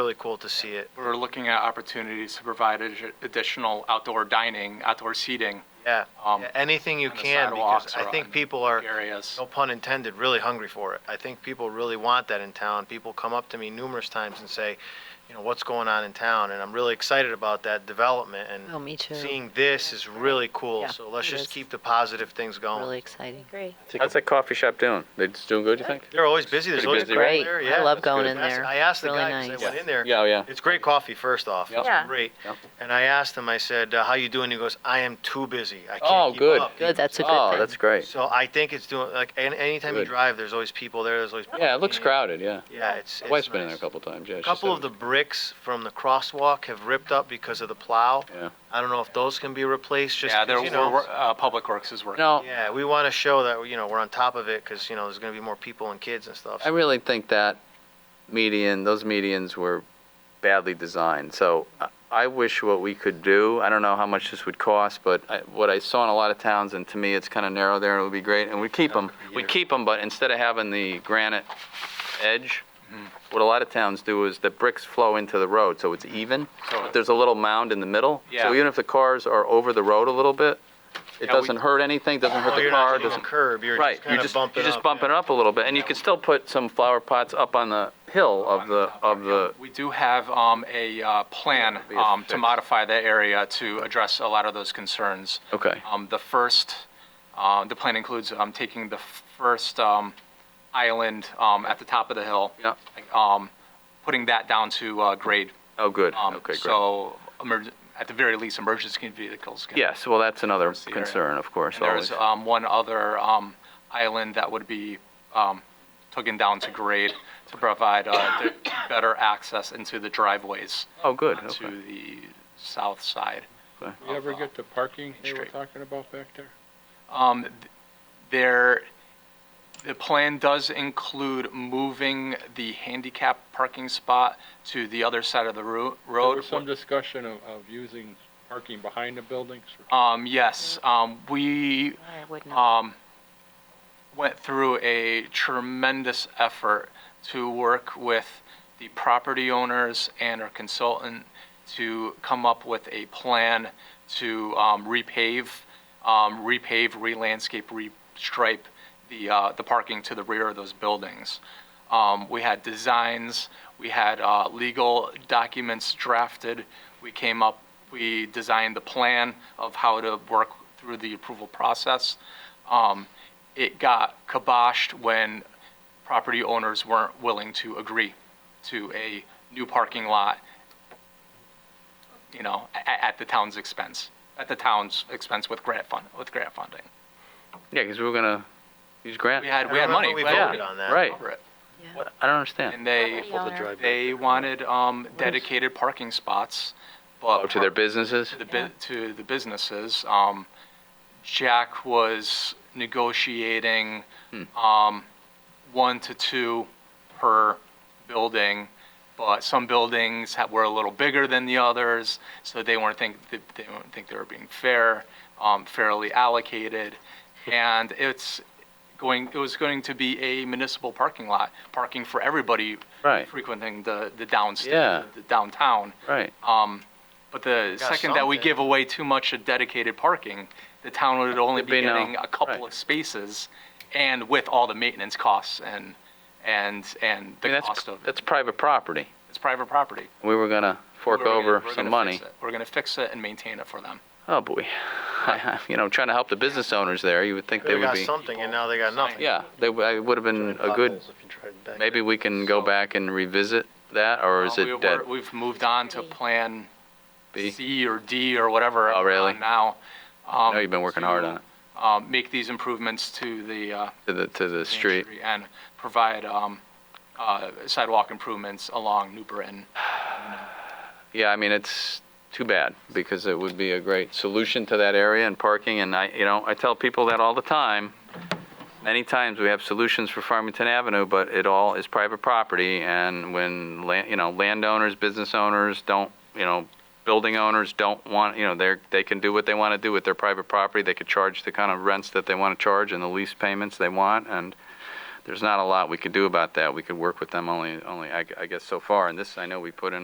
really cool to see it. We're looking at opportunities to provide addi- additional outdoor dining, outdoor seating Yeah, Um, Yeah, anything you on the can, because sidewalks I or think on people are, areas. no pun intended, really hungry for it. I think people really want that in town. People come up to me numerous times and say, you know, what's going on in town? And I'm really excited about that development, Oh, and me too. seeing this is really cool. Yeah, So let's it just is. keep the positive things Really going. exciting. Great. How's that coffee shop doing? They just doing good, you think? They're always busy, there's Pretty always busy, people right? there, Great. I yeah. love That's good. going in That's- there. I asked the Really guy, 'cause nice. I went in there. Yeah, oh, yeah. It's great coffee, first off. Yeah. It's Yeah. great. Yeah. And I asked him, I said, uh, how you doing? He goes, I am too busy. I Oh, can't keep good. up. Good, that's a good Oh, thing. that's great. So I think it's doing, like, an- anytime you Good. drive, there's always people there, there's always. Yeah, it looks crowded, yeah. Yeah, it's. My it's wife's been in there a nice. couple times, yeah. A she Couple said of it the bricks from the crosswalk have ripped up because of the plow. was- Yeah. I don't know if those can be replaced, just, Yeah, 'cause, there, you know. we're- uh, Public Works is working. No, Yeah, we want to show that, you know, we're on top of it, because, you know, there's going to be more people and kids and stuff. I really think that median, those medians were badly designed. So I- I wish what we could do, I don't know how much this would cost, but I- what I saw in a lot of towns, and to me, it's kind of narrow there, and it would be great, and we keep them, we keep them, but instead of having the granite edge, Mm-hmm. what a lot of towns do is the bricks flow into the road, so it's even, So- but there's a little mound in the middle. Yeah. So even if the cars are over the road a little bit, it Yeah, we- doesn't hurt anything, doesn't hurt Oh, the you're not car, hitting a doesn't curb, you're Right, just you kind of just, you bumping just up, bumping yeah. it up a little bit, and you can still put some flower pots up on the hill of the, of the, We do have um, a uh, plan That'd be a um, to fix. modify that area to address a lot of those concerns. okay, Um, The first, uh, the plan includes um, taking the first um, island um, at the top of the hill, yeah, um, putting that down to uh, grade. oh, good, um, okay, great. So, emerg- at the very least, emergency vehicles can. Yes, well, that's another See, area. concern, of course, And always, there's um, one other um, island that would be um, taken down to grade to provide uh, the better access into the driveways oh, good, to okay. the south side. You ever get the parking they were Straight. talking about back there? Um, th- There, the plan does include moving the handicap parking spot to the other side of the ro- There road. was some discussion of, of using parking behind the buildings. Um, Yes, um, we I would not. um, went through a tremendous effort to work with the property owners and our consultant to come up with a plan to um, repave, um, repave, re-landscape, re-stripe the, uh, the parking to the rear of those buildings. Um, We had designs, we had uh, legal documents drafted, we came up, we designed the plan of how to work through the approval process. Um, It got kiboshed when property owners weren't willing to agree to a new parking lot, you know, at, at the town's expense, at the town's expense with grant fund, with grant funding. Yeah, because we were gonna use We grant, had, we had I remember money. We had voted money on that. right, for it. I don't understand, And they, they wanted um, dedicated parking spots, but. oh, to their businesses? to the, bu- to the businesses. Um, Jack was negotiating, Hmm. um, one to two per building, but some buildings ha were a little bigger than the others, so they weren't think, they they weren't think they were being fair, um, fairly allocated. And it's going, it was going to be a municipal parking lot, parking for everybody Right, frequenting the, the downstairs, Yeah. the downtown. right, Um, but the Got second that we something. give away too much of dedicated parking, the town would only There'd be be no- getting a couple right. of spaces and with all the maintenance costs and, and, and I mean, the that's, cost of it. that's private property, It's private property. we were gonna fork We're gonna- we're over gonna some fix money. it. We're gonna fix it and maintain it for them. Oh, boy, you know, trying to help the business owners there, you would think they They would got be, something and now they got nothing. yeah, they, w- it would have been a good Maybe we can go So- back and revisit that, or Uh, is we- it we're- dead? We've moved on to Plan B? C or D or whatever. Oh, really? uh, Now. I know you've been working hard on it, Um, make these improvements to the, uh, to the, to the Main street. And provide um, uh, sidewalk improvements along New Britain. Yeah, I mean, it's too bad, because it would be a great solution to that area and parking, and I, you know, I tell people that all the time. Many times we have solutions for Farmington Avenue, but it all is private property, and when, land, you know, landowners, business owners don't, you know, building owners don't want, you know, they're, they can do what they want to do with their private property, they could charge the kind of rents that they want to charge and the lease payments they want, and there's not a lot we could do about that. We could work with them only, only, I, I guess so far. And this, I know we put in